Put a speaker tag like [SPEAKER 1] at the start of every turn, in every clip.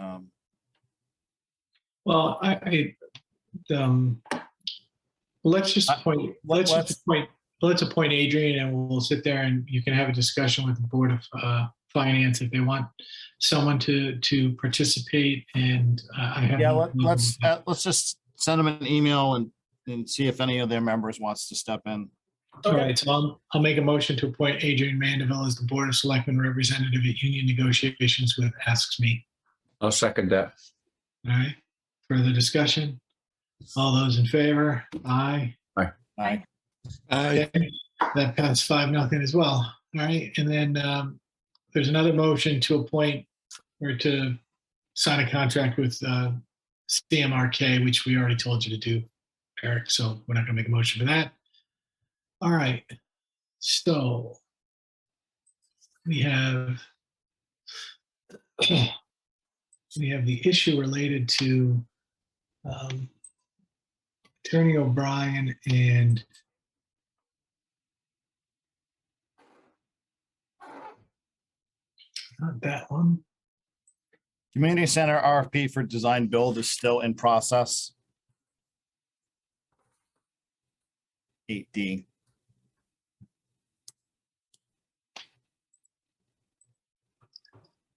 [SPEAKER 1] Um,
[SPEAKER 2] Well, I, I, um, let's just
[SPEAKER 1] I-
[SPEAKER 2] appoint,
[SPEAKER 1] let-
[SPEAKER 2] let's
[SPEAKER 1] let's-
[SPEAKER 2] just appoint, let's appoint Adrian and we'll sit there and you can have a discussion with the Board of, uh, Finance if they want someone to, to participate and uh, I have.
[SPEAKER 1] Yeah,
[SPEAKER 2] no
[SPEAKER 1] let-
[SPEAKER 2] problem
[SPEAKER 1] let's,
[SPEAKER 2] with that.
[SPEAKER 1] uh, let's just send them an email and, and see if any of their members wants to step in.
[SPEAKER 2] All right, so I'll, I'll make a motion to appoint Adrian Mandeville as the Board of Selectmen Representative at Union Negotiations with Asks Me.
[SPEAKER 3] I'll second that.
[SPEAKER 2] All right, further discussion? All those in favor? Aye.
[SPEAKER 1] Aye.
[SPEAKER 2] Okay, That passed five, nothing as well. All right, and then um, there's another motion to appoint or to sign a contract with uh, CMRK, which we already told you to do, Eric, so we're not gonna make a motion for that. All right, so we have we have the issue related to um, Attorney O'Brien and Not that one.
[SPEAKER 1] Community Center RFP for design build is still in process. Eight D.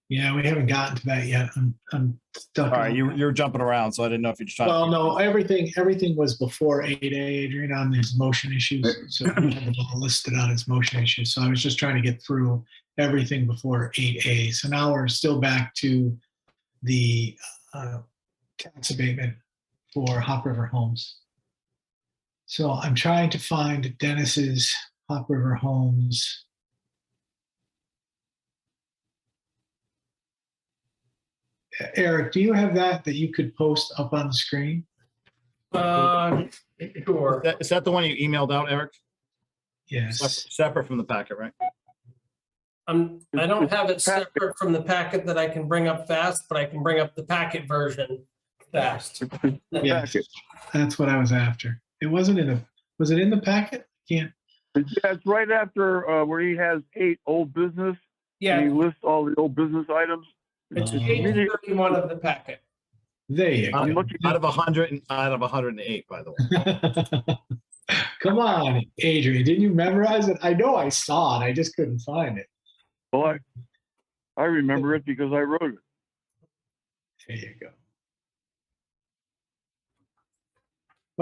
[SPEAKER 2] Yeah, we haven't gotten to that yet. I'm, I'm stuck.
[SPEAKER 1] All right,
[SPEAKER 2] on-
[SPEAKER 1] you, uh, you're jumping around, so I didn't know if you're just trying. to-
[SPEAKER 2] Well, no, everything, everything was before eight A, Adrian, on his motion issues. So we have it all listed on his motion issues. So I was just trying to get through everything before eight A. So now we're still back to the uh, tax abatement for Hop River Homes. So I'm trying to find Dennis's Hop River Homes. E-, Eric, do you have that that you could post up on the screen?
[SPEAKER 4] Uh, Sure.
[SPEAKER 1] Is that- Is that the one you emailed out, Eric?
[SPEAKER 2] Yes.
[SPEAKER 1] Separate separate from the packet, right?
[SPEAKER 4] I'm, Um, I don't have it separate from the packet that I can bring up fast, but I can bring up the packet version fast.
[SPEAKER 2] Yes, that's what I was after. It wasn't in the, was it in the packet? Can't,
[SPEAKER 5] That's right after uh, where he has eight old business. and
[SPEAKER 4] Yeah,
[SPEAKER 5] He lists all the old business items.
[SPEAKER 4] it's
[SPEAKER 2] Oh.
[SPEAKER 4] page thirty-one of the packet.
[SPEAKER 2] there you
[SPEAKER 1] I'm
[SPEAKER 2] go.
[SPEAKER 1] looking out of a hundred and out of a hundred and eight, by the way.
[SPEAKER 2] Come on, Adrian, didn't you memorize it? I know I saw it, I just couldn't find it.
[SPEAKER 5] Well, I, I remember it because I wrote it.
[SPEAKER 2] There you go.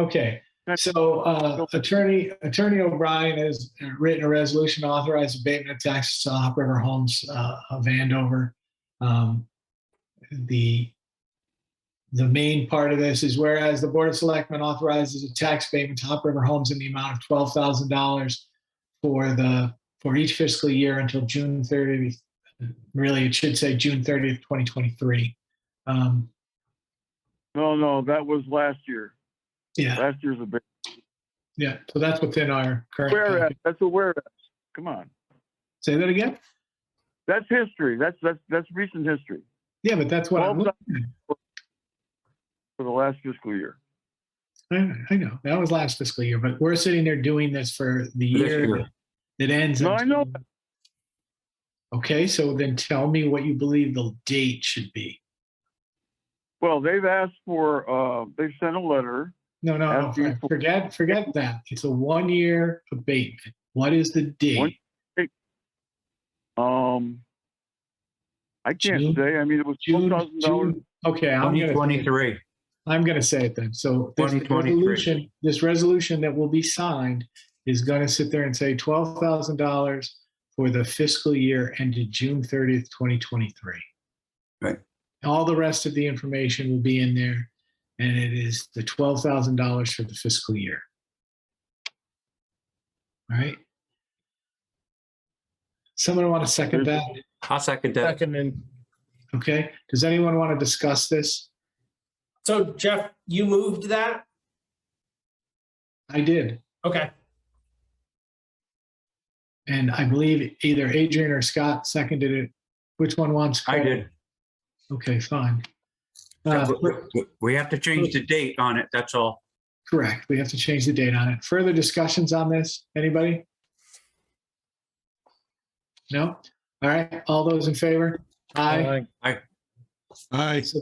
[SPEAKER 2] Okay,
[SPEAKER 5] That's-
[SPEAKER 2] so uh, Attorney, Attorney O'Brien has written a resolution to authorize abatement of taxes to Hop River Homes uh, of Andover. Um, The, the main part of this is whereas the Board of Selectmen authorizes a tax abatement to Hop River Homes in the amount of twelve thousand dollars for the, for each fiscal year until June thirtieth, really, it should say June thirtieth, twenty twenty-three. Um,
[SPEAKER 5] No, no, that was last year.
[SPEAKER 2] yeah,
[SPEAKER 5] Last year's a big.
[SPEAKER 2] yeah. So that's within our current.
[SPEAKER 5] Whereas, that's a whereas. Come on.
[SPEAKER 2] Say that again?
[SPEAKER 5] That's history. That's, that's, that's recent history
[SPEAKER 2] Yeah, but that's what I'm
[SPEAKER 5] Well,
[SPEAKER 2] looking
[SPEAKER 5] for the last fiscal year.
[SPEAKER 2] at. I, I know. That was last fiscal year, but we're sitting there doing this for the
[SPEAKER 3] This
[SPEAKER 2] year
[SPEAKER 3] year.
[SPEAKER 2] that ends.
[SPEAKER 5] No, I know.
[SPEAKER 2] in- Okay, so then tell me what you believe the date should be.
[SPEAKER 5] Well, they've asked for, uh, they've sent a letter.
[SPEAKER 2] No, no,
[SPEAKER 5] After you-
[SPEAKER 2] no. Forget, forget that. It's a one-year abatement. What is the
[SPEAKER 5] One-
[SPEAKER 2] date?
[SPEAKER 5] Um, I
[SPEAKER 2] June-
[SPEAKER 5] can't say. I mean, it was
[SPEAKER 2] June,
[SPEAKER 5] $12,000.
[SPEAKER 2] June. Okay, I'm gonna.
[SPEAKER 3] 2023.
[SPEAKER 2] I'm going to say it then. So this
[SPEAKER 3] 2023.
[SPEAKER 2] resolution, this resolution that will be signed is going to sit there and say twelve thousand dollars for the fiscal year ended June thirtieth, twenty twenty-three.
[SPEAKER 3] Right.
[SPEAKER 2] All the rest of the information will be in there, and it is the twelve thousand dollars for the fiscal year. All right. Someone want to second that?
[SPEAKER 3] I'll second that.
[SPEAKER 1] Second and
[SPEAKER 2] Okay. Does anyone want to discuss this?
[SPEAKER 4] So Jeff, you moved that?
[SPEAKER 2] I did.
[SPEAKER 4] Okay,
[SPEAKER 2] And I believe either Adrian or Scott seconded it. Which one wants?
[SPEAKER 3] I
[SPEAKER 2] credit?
[SPEAKER 3] did.
[SPEAKER 2] Okay, fine. Uh,
[SPEAKER 3] We- we- We have to change the date on it, that's all.
[SPEAKER 2] Correct. We have to change the date on it. Further discussions on this? Anybody? No? All right. All those in favor? Aye.
[SPEAKER 3] Aye.
[SPEAKER 2] Aye.